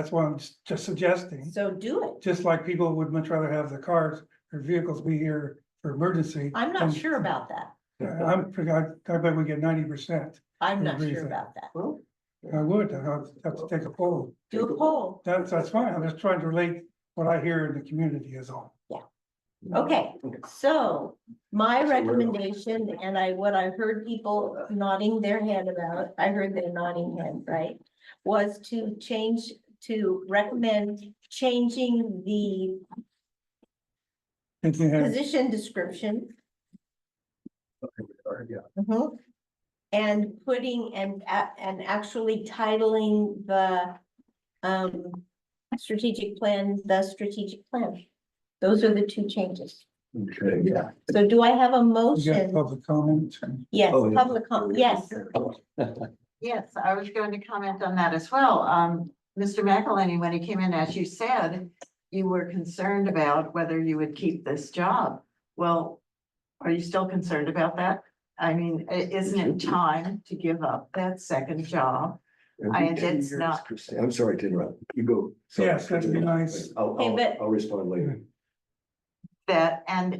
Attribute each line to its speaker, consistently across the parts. Speaker 1: That's why I'm s- just suggesting,
Speaker 2: So do it.
Speaker 1: just like people would much rather have the cars or vehicles be here for emergency.
Speaker 2: I'm
Speaker 1: than-
Speaker 2: not sure about that.
Speaker 1: I'm, I I bet we get ninety percent.
Speaker 2: I'm not
Speaker 1: Agree
Speaker 2: sure
Speaker 1: with that.
Speaker 2: about that.
Speaker 3: Well,
Speaker 1: I would, I'd have to take a poll.
Speaker 2: Do a poll.
Speaker 1: That's, that's fine. I'm just trying to relate what I hear in the community is all.
Speaker 2: Okay,
Speaker 3: Okay.
Speaker 2: so my
Speaker 3: So we're-
Speaker 2: recommendation and I, what I heard people nodding their head about, I heard their nodding head, right? Was to change, to recommend changing the
Speaker 1: If you had-
Speaker 2: position description
Speaker 3: or, yeah,
Speaker 2: Mhm. And putting and a- and actually titling the um strategic plan, the strategic plan. Those are the two changes.
Speaker 3: Okay, yeah.
Speaker 2: So do I have a
Speaker 1: you got
Speaker 2: motion?
Speaker 1: public comment.
Speaker 2: Yes,
Speaker 3: Oh, yeah.
Speaker 2: public, com- yes,
Speaker 4: Yes, I was going to comment on that as well. Um, Mr. McElhenney, when he came in, as you said, you were concerned about whether you would keep this job. Well, are you still concerned about that? I mean, i- isn't it time to give up that second job? I-
Speaker 3: Every ten
Speaker 4: it's
Speaker 3: years,
Speaker 4: not-
Speaker 3: Christine- I'm sorry to interrupt. You go. Sorry,
Speaker 1: Yes, that'd be
Speaker 3: continue.
Speaker 1: nice. Mm.
Speaker 3: I'll,
Speaker 2: Hey, but-
Speaker 3: I'll, I'll respond later.
Speaker 4: That and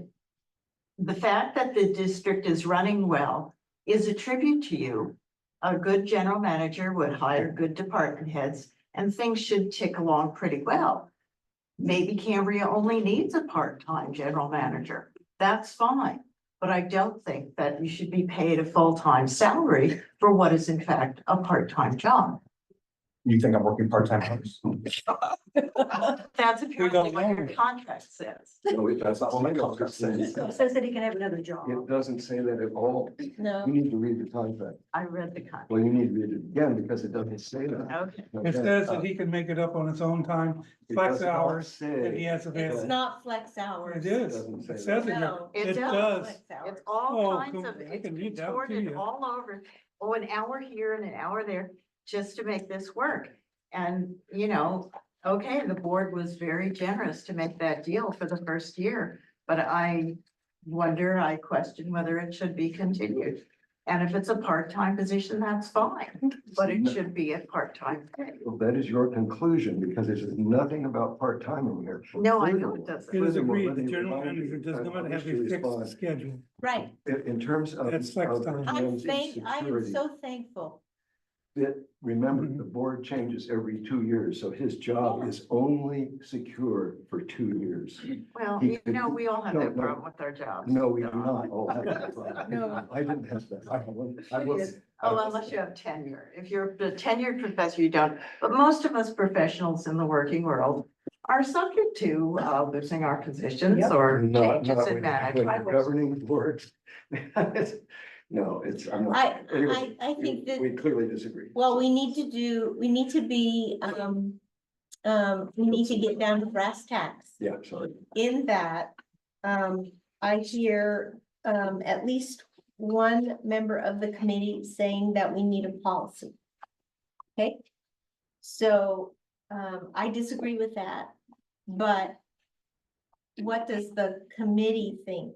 Speaker 4: the fact that the district is running well is a tribute to you. A good general manager would hire good department heads and things should tick along pretty well. Maybe Cambria only needs a part-time general manager. That's fine. But I don't think that you should be paid a full-time salary for what is in fact a part-time job.
Speaker 5: You think I'm working part-time hours?
Speaker 4: That's apparently what your
Speaker 1: know.
Speaker 4: contract says.
Speaker 3: No, it does not.
Speaker 5: Well, maybe I'll
Speaker 3: It
Speaker 5: just say-
Speaker 3: says-
Speaker 4: Says that he can have another job.
Speaker 3: It doesn't say that at all. You
Speaker 2: no,
Speaker 3: need to read the contract.
Speaker 4: I read the contract.
Speaker 3: Well, you need to read it again because it doesn't say that.
Speaker 4: Okay.
Speaker 1: It says
Speaker 3: uh,
Speaker 1: that he can make it up on his own time,
Speaker 3: It
Speaker 1: flex
Speaker 3: does not
Speaker 1: hours, if he
Speaker 3: Say.
Speaker 1: has
Speaker 2: it's
Speaker 1: available.
Speaker 2: not flex
Speaker 1: It
Speaker 2: hours.
Speaker 1: is.
Speaker 3: Doesn't say
Speaker 1: It says it.
Speaker 2: that.
Speaker 1: here.
Speaker 2: No,
Speaker 4: It
Speaker 1: It
Speaker 4: does.
Speaker 1: does.
Speaker 4: It's
Speaker 1: Oh,
Speaker 4: all kinds
Speaker 1: come-
Speaker 4: of,
Speaker 1: I
Speaker 4: it's
Speaker 1: can read that to
Speaker 4: contorted
Speaker 1: you.
Speaker 4: all over. Oh, an hour here and an hour there just to make this work. And, you know, okay, the board was very generous to make that deal for the first year. But I wonder, I question whether it should be continued. And if it's a part-time position, that's fine, but it should be a part-time pay.
Speaker 3: Well, that is your conclusion because it says nothing about part-time in here.
Speaker 4: No, I know
Speaker 3: Furthermore-
Speaker 4: it doesn't.
Speaker 1: It is
Speaker 3: Furthermore,
Speaker 1: agreed,
Speaker 3: let
Speaker 1: the
Speaker 3: me
Speaker 1: general
Speaker 3: remind you,
Speaker 1: manager does
Speaker 3: I- I
Speaker 1: not
Speaker 3: wish
Speaker 1: have
Speaker 3: to
Speaker 1: a
Speaker 3: respond.
Speaker 1: fixed schedule.
Speaker 2: Right,
Speaker 3: In, in terms of.
Speaker 1: That's flex
Speaker 3: of
Speaker 1: time.
Speaker 2: I'm
Speaker 3: Jim's
Speaker 2: thank, I am
Speaker 3: insecurity,
Speaker 2: so thankful.
Speaker 3: that- remember, the board changes every two years, so his job is only secure for two years.
Speaker 4: Well,
Speaker 3: He
Speaker 4: you
Speaker 3: could-
Speaker 4: know, we all have
Speaker 3: no,
Speaker 4: that
Speaker 3: no.
Speaker 4: problem with our jobs.
Speaker 3: No, we do
Speaker 4: Don.
Speaker 3: not all have that problem.
Speaker 4: No.
Speaker 3: I didn't have that. I wasn't- I was.
Speaker 4: Oh, unless you have tenure. If you're a tenured professor, you don't. But most of us professionals in the working world are subject to uh, losing our positions or
Speaker 3: Not, not
Speaker 4: changes in
Speaker 3: when when
Speaker 4: management.
Speaker 3: the governing boards. No, it's, I'm not.
Speaker 2: I, I,
Speaker 3: anyway,
Speaker 2: I think that.
Speaker 3: We clearly disagree.
Speaker 2: Well, we need to do, we need to be, um, um, we need to get down to brass tacks
Speaker 3: Yeah, sorry.
Speaker 2: in that, um, I hear, um, at least one member of the committee saying that we need a policy. Okay? So, um, I disagree with that, but what does the committee think?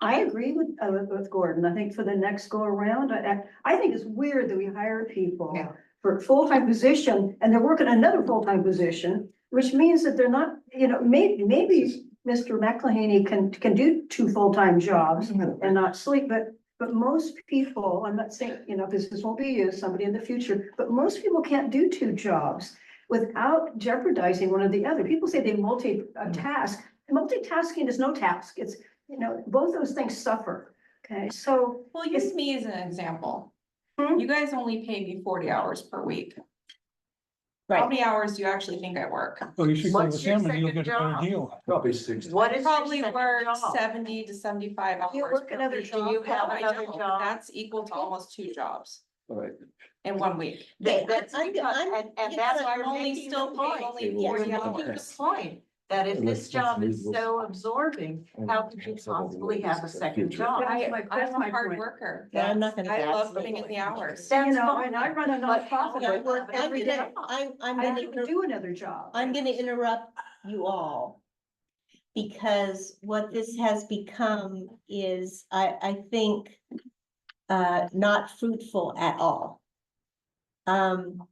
Speaker 6: I agree with, uh, with- with Gordon. I think for the next go around, I, I- I think it's weird that we hire people
Speaker 4: Yeah.
Speaker 6: for a full-time position and they're working another full-time position, which means that they're not, you know, may, maybe Mr. McLeany can, can do two full-time jobs and not sleep, but, but most people, I'm not saying, you know, because this won't be you, somebody in the future, but most people can't do two jobs without jeopardizing one or the other. People say they multi-task. Multitasking is no task. It's, you know, both those things suffer. Okay, so
Speaker 7: Well, use me as an example.
Speaker 6: Hmm?
Speaker 7: You guys only pay me forty hours per week. How many hours do you actually think I work?
Speaker 1: Well, you should go
Speaker 4: What's
Speaker 1: with
Speaker 4: your
Speaker 1: him and you'll
Speaker 4: second
Speaker 1: get a better
Speaker 4: job?
Speaker 1: deal.
Speaker 3: Probably six.
Speaker 4: What is your
Speaker 7: Probably
Speaker 4: second
Speaker 7: work
Speaker 4: job?
Speaker 7: seventy to seventy-five hours.
Speaker 6: You work
Speaker 7: per
Speaker 6: another
Speaker 7: week.
Speaker 4: job? Do you have
Speaker 7: No, I
Speaker 4: another
Speaker 7: don't.
Speaker 4: job?
Speaker 7: That's equal to almost two jobs
Speaker 3: All right.
Speaker 7: in one week.
Speaker 2: Okay,
Speaker 4: That- That's
Speaker 2: I'm-
Speaker 4: because,
Speaker 2: I'm-
Speaker 4: and, and
Speaker 2: yeah,
Speaker 4: that's
Speaker 2: so
Speaker 4: why
Speaker 7: I'm
Speaker 4: you're
Speaker 7: only
Speaker 4: making the
Speaker 7: still
Speaker 4: point.
Speaker 7: paying only
Speaker 3: Yeah,
Speaker 7: forty
Speaker 4: You're making the
Speaker 7: hours.
Speaker 4: point that if this
Speaker 3: Unless
Speaker 4: job
Speaker 3: it's
Speaker 4: is
Speaker 3: legal.
Speaker 4: so absorbing, how could you possibly have a second job?
Speaker 6: That's
Speaker 7: I,
Speaker 6: my- that's
Speaker 7: I'm
Speaker 6: my
Speaker 7: a hard
Speaker 6: point.
Speaker 7: worker.
Speaker 2: Yeah, I'm not gonna-
Speaker 7: I
Speaker 4: That's
Speaker 7: love
Speaker 4: my
Speaker 7: putting in the
Speaker 4: point.
Speaker 7: hours.
Speaker 6: you
Speaker 4: That's
Speaker 6: know, and I
Speaker 4: fine.
Speaker 6: run a
Speaker 4: But how
Speaker 6: nonprofit.
Speaker 4: do
Speaker 6: I
Speaker 4: you
Speaker 6: work
Speaker 4: have
Speaker 6: every
Speaker 2: I'm
Speaker 6: day.
Speaker 2: gonna, I'm, I'm
Speaker 6: I
Speaker 2: gonna.
Speaker 6: have to do another job.
Speaker 2: I'm gonna interrupt you all. Because what this has become is, I, I think, uh, not fruitful at all. Um,